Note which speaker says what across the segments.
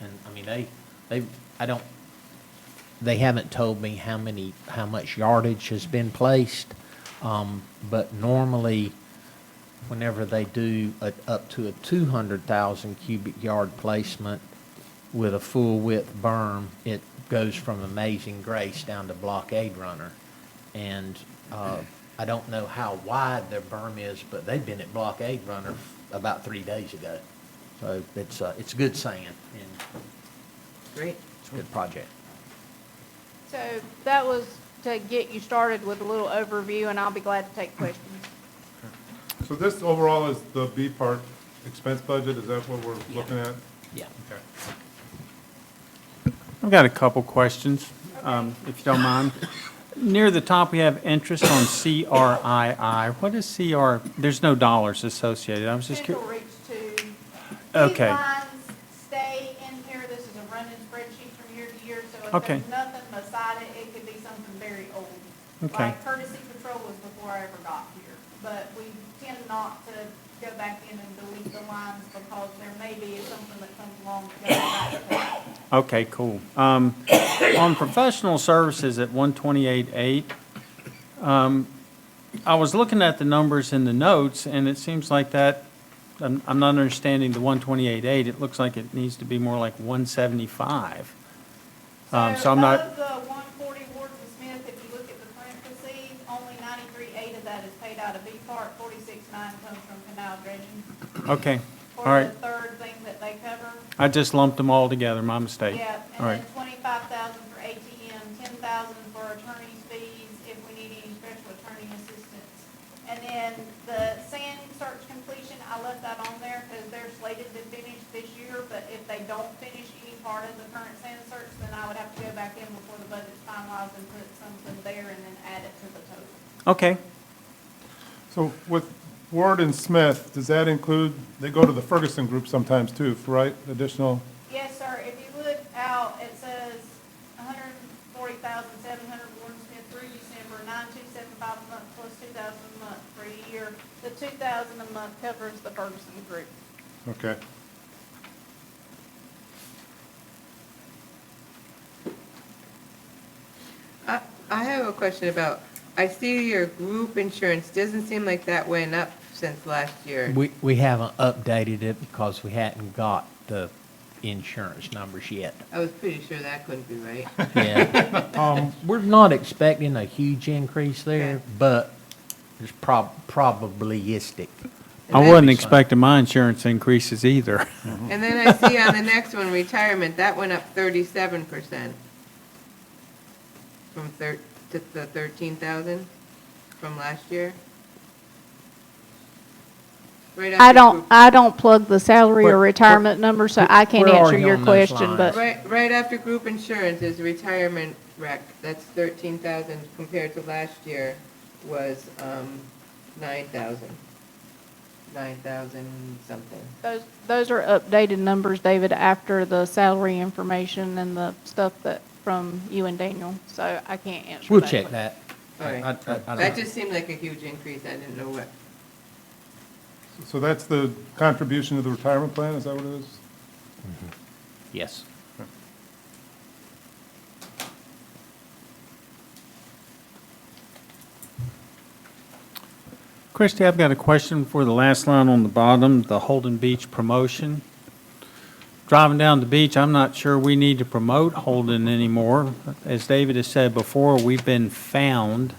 Speaker 1: And, I mean, they, they, I don't, they haven't told me how many, how much yardage has been placed. Um, but normally, whenever they do a, up to a two hundred thousand cubic yard placement with a full width berm, it goes from Amazing Grace down to Blockade Runner. And, uh, I don't know how wide their berm is, but they've been at Blockade Runner about three days ago. So it's, uh, it's good sand and
Speaker 2: Great.
Speaker 1: it's a good project.
Speaker 3: So that was to get you started with a little overview, and I'll be glad to take questions.
Speaker 4: So this overall is the B part expense budget, is that what we're
Speaker 1: Yeah.
Speaker 4: looking at?
Speaker 1: Yeah.
Speaker 4: Okay.
Speaker 5: I've got a couple questions, um, if you don't mind. Near the top, we have interest on CRII. What is CR? There's no dollars associated. I was just
Speaker 3: Central
Speaker 5: curious.
Speaker 3: Reach Two.
Speaker 5: Okay.
Speaker 3: These lines stay in here, this is a running spreadsheet from year to year, so if
Speaker 5: Okay.
Speaker 3: there's nothing beside it, it could be something very old.
Speaker 5: Okay.
Speaker 3: Like courtesy patrol was before I ever got here, but we tend not to go back in and delete the lines because there may be something that comes along that goes back to it.
Speaker 5: Okay, cool. Um, On professional services at 128.8, um, I was looking at the numbers in the notes, and it seems like that, I'm I'm not understanding the 128.8. It looks like it needs to be more like 175. Um, So I'm not.
Speaker 3: Of the one forty Ward and Smith, if you look at the current received, only ninety-three eight of that is paid out of B Park, forty-six nine comes from canal dredging.
Speaker 5: Okay, all
Speaker 3: For
Speaker 5: right.
Speaker 3: the third thing that they cover.
Speaker 5: I just lumped them all together, my mistake.
Speaker 3: Yeah,
Speaker 5: All
Speaker 3: and
Speaker 5: right,
Speaker 3: then twenty-five thousand for ATM, ten thousand for attorney's fees if we need any special attorney assistance. And then the sand search completion, I left that on there because they're slated to finish this year, but if they don't finish any part of the current sand search, then I would have to go back in before the budget's finalized and put something there and then add it to the total.
Speaker 5: okay.
Speaker 4: So with Ward and Smith, does that include, they go to the Ferguson group sometimes too, right? Additional,
Speaker 3: Yes, sir, if you look out, it says hundred and forty thousand, seven hundred Warden Smith through December, nine two seven five a month plus two thousand a month for a year. The two thousand a month covers the Ferguson group.
Speaker 4: okay.
Speaker 2: I, I have a question about, I see your group insurance, doesn't seem like that went up since last year.
Speaker 1: We, we haven't updated it because we hadn't got the insurance numbers yet.
Speaker 2: I was pretty sure that couldn't be right.
Speaker 1: Yeah. Um, we're not expecting a huge increase there,
Speaker 2: Okay.
Speaker 1: but it's prob, probabilistic.
Speaker 5: I
Speaker 2: And then-
Speaker 5: wasn't expecting my insurance increases either.
Speaker 2: And then I see on the next one, retirement, that went up thirty-seven percent. From thir, to the thirteen thousand from last year. Right
Speaker 3: I
Speaker 2: after
Speaker 3: don't,
Speaker 2: group-
Speaker 3: I don't plug the salary
Speaker 1: Where-
Speaker 3: or
Speaker 1: where-
Speaker 3: retirement number, so I can't
Speaker 1: where are
Speaker 3: answer
Speaker 1: you
Speaker 3: your
Speaker 1: on those
Speaker 3: question,
Speaker 1: lines?
Speaker 3: but
Speaker 2: Right, right after group insurance is retirement rec, that's thirteen thousand compared to last year was, um, nine thousand. Nine thousand something.
Speaker 3: those, those are updated numbers, David, after the salary information and the stuff that, from you and Daniel, so I can't answer
Speaker 1: We'll check that. I-
Speaker 2: Alright.
Speaker 1: I- I- I don't
Speaker 2: That
Speaker 1: know.
Speaker 2: just seemed like a huge increase, I didn't know what,
Speaker 4: So that's the contribution to the retirement plan, is that what it is?
Speaker 1: Yes.
Speaker 5: Christie, I've got a question for the last line on the bottom, the Holden Beach promotion. Driving down the beach, I'm not sure we need to promote Holden anymore. As David has said before, we've been found.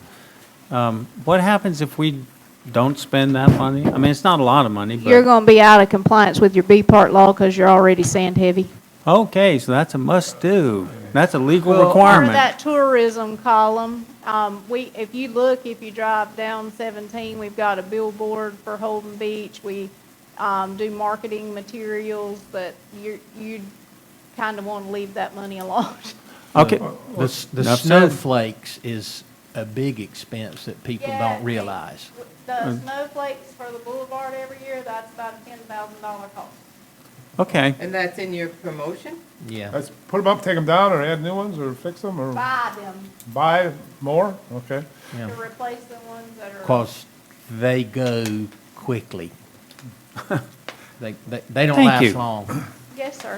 Speaker 5: Um, What happens if we don't spend that money? I mean, it's not a lot of money, but.
Speaker 3: You're gonna be out of compliance with your B part law because you're already sand heavy.
Speaker 5: Okay, so that's a must-do. That's a legal
Speaker 1: Well-
Speaker 3: For
Speaker 5: requirement.
Speaker 3: that tourism column, um, we, if you look, if you drive down seventeen, we've got a billboard for Holden Beach. We, um, do marketing materials, but you, you kind of want to leave that money alone.
Speaker 5: Okay.
Speaker 1: The, s- the
Speaker 5: Enough said.
Speaker 1: snowflakes is a big expense that people
Speaker 3: Yeah,
Speaker 1: don't
Speaker 3: and-
Speaker 1: realize.
Speaker 3: The snowflakes for the boulevard every year, that's about a ten thousand dollar cost.
Speaker 5: Okay.
Speaker 2: and that's in your promotion?
Speaker 1: Yeah.
Speaker 4: Let's put them up, take them down, or add new ones, or fix them, or
Speaker 3: Buy them
Speaker 4: buy more? Okay.
Speaker 1: Yeah.
Speaker 3: to replace the ones that are.
Speaker 1: Because they go quickly. They, they, they don't
Speaker 5: Thank you.
Speaker 1: last long.
Speaker 3: Yes, sir.